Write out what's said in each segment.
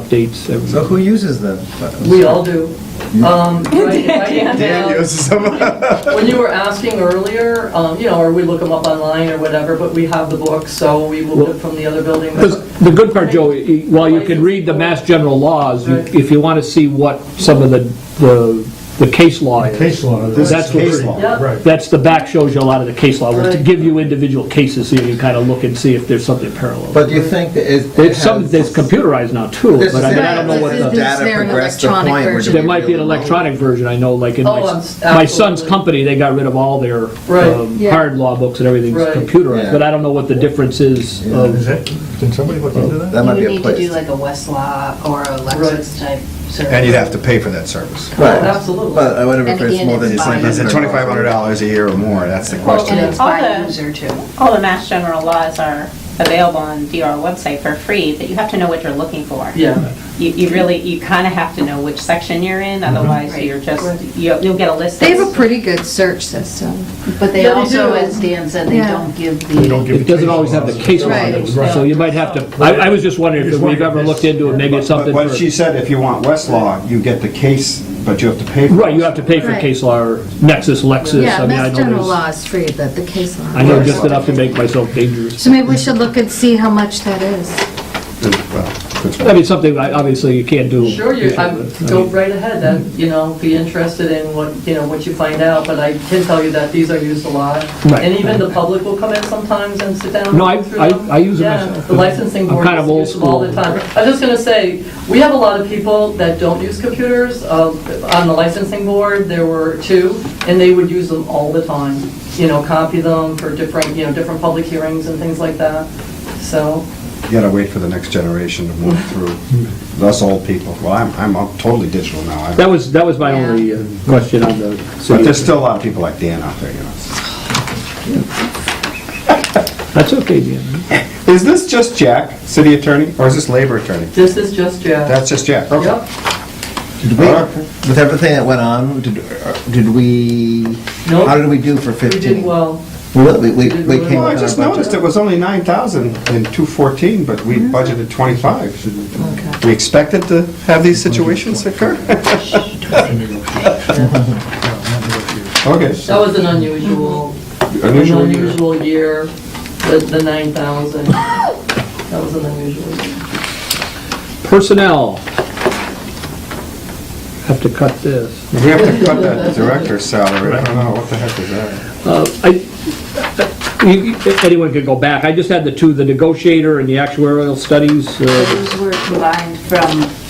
updates. every- So who uses them? We all do. Um, write- write it Dan down. uses them. When you were asking earlier, um, you know, or we look them up online or whatever, but we have the books, so we will get from the other building. Because the good part, Joe, i- while you can read the mass general laws, you- Right. if you want to see what some of the, the the case law is, Case law. This That's is what- case law. Yeah. Right. that's, the back shows you a lot of the case law, was to Right. give you individual cases, so you can kind of look and see if there's something parallel. But do you think that it? There's some, has- that's computerized now too, This but I is- mean, I don't know what This is- the, Is Data there an progressed to the electronic point where. version? there might be an electronic version, I know, like in my, Oh, s- I'm- my son's absolutely. company, they got rid of all their Right. um, Yeah. hard law books and everything's Right. computerized, Yeah. but I don't know what the difference is Yeah. of Is that, did somebody look into that? That might be You a would need to place. do like a Westlaw or a Lexis type service. And you'd have to pay for that service. Right. Absolutely. But I wonder if Oh, And it's again, more than. it's you said. fine. Is it twenty-five hundred dollars a year or more? That's the And question. it's by All the- user too. All the Mass General laws are available on DR website for free, but you have to know what you're looking for. Yeah, You, you really, you kind of have to know which section you're in, otherwise Right. you're just, you'll, you'll get a list. They have a that's- pretty good search system. But they Yeah, they also, do. as Dan said, they Yeah. don't give They don't the, give It doesn't always have the case law, Right. in it, so you might have to, I, I was just wondering if we've ever looked into it, maybe it's But something what she for, said, if you want Westlaw, you get the case, but you have to pay for it. right, you have to pay for Right. case law, or Nexus, Lexis, Yeah, I mean, I mass general know law there's, is free, but the case law. I know just enough to make myself dangerous. So maybe we should look and see how much that is. I mean, something, I- obviously, you can't do. sure, you, I'm, go right ahead, then, you know, be interested in what, you know, what you find out, but I can tell you that these are used a lot. Right. And even the public will come in sometimes and sit down. and No, I- go through I- them. I use it Yeah, myself. The licensing I'm board kind of old uses them all the school. time. I was just gonna say, we have a lot of people that don't use computers. Uh, On the licensing board, there were two, and they would use them all the time. You know, copy them for different, you know, different public hearings and things like that. So, You gotta wait for the next generation to move through. Us old people, well, I'm, I'm all totally digital now. I- That was, that was my Yeah. only uh, question on the But there's city. still a lot of people like Dan out there, you know. That's okay, Dan. Is this just Jack, city attorney, or is this labor attorney? this is just Jack. That's just Jack, okay. Yep. Did we- With everything that went on, did, uh, did we, Nope. how did we do for We 15? did well. Well, We, we, did we well. came Well, I within just our budget. noticed it was only nine thousand in two fourteen, but we budgeted twenty-five. We expected to have these situations occur? Okay. That was an unusual, an Unusual year. unusual year, the, the nine thousand. That was an unusual year. Personnel. Have to cut this. We have to cut that director's salary, I don't know, what the heck is that? I- you- you- Anyone could go back. I just had the two, the negotiator and the actuarial studies. uh, those were combined from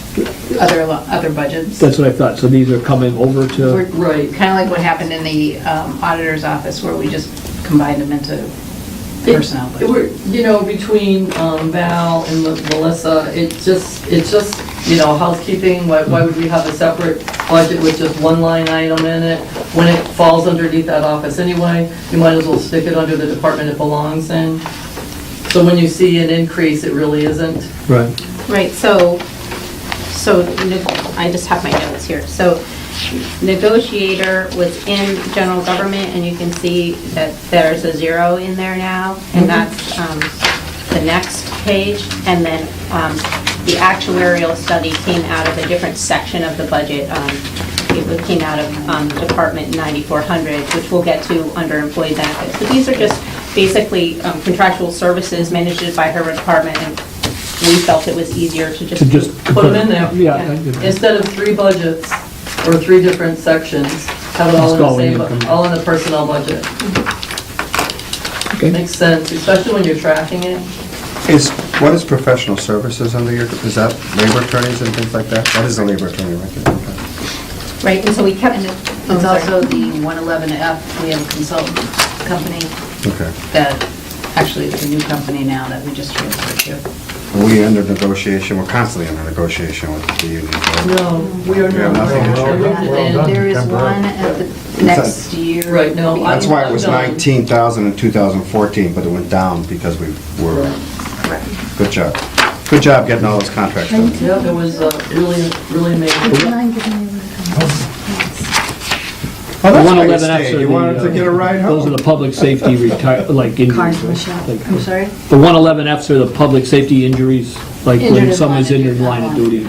other, lo- other budgets. That's what I thought. So these are coming over to, Kind Right. of like what happened in the um, auditor's office where we just combined them into personnel. It- it budget. were- You know, between um, Val and Mel- Melissa, it just, it's just, you know, housekeeping, why, why would we have a separate budget with just one line item in it? When it falls underneath that office anyway, you might as well stick it under the department it belongs in. So when you see an increase, it really isn't. right. Right, so, so, ne- I just have my notes here. So negotiator was in general government, and you can see that there's a zero in there now, Mm-hmm. and that's um, the next page. And then um, the actuarial study came out of a different section of the budget. Um, It was- came out of um, Department 9400, which we'll get to under employee benefits. But these are just basically um, contractual services managed by her department, and we felt it was easier to just. To just. Put them in there. Yeah. I did. Instead of three budgets or three different sections, have it all in Just the all in same, income. bu- all in the personnel budget. Okay. Makes sense, especially when you're tracking it. Is, what is professional services under your, is that labor attorneys and things like that? That is a labor attorney right there. okay. Right, and so we kept. It's also the 111F, we have a consultant company Okay. that, actually it's a new company now that we just transferred to. Are we under negotiation? We're constantly under negotiation with the union. right? No, we are We have not. nothing to We're share. not. Well And done. There is Temporary. one at the next year. Right, no, I- That's why it was I'm done. nineteen thousand in two thousand fourteen, but it went down because we were, good job. Good job getting all those contracts done. Yeah, it was uh, really, really amazing. Would you mind giving me a- Oh, The that's why you 111Fs stayed. are You the, wanted to uh, get a ride home. Those are the public safety retire, like injuries. Cars, right? Michelle. Like- I'm sorry? The 111Fs are the public safety injuries, like Injured when in someone's line of injured in duty. line of duty.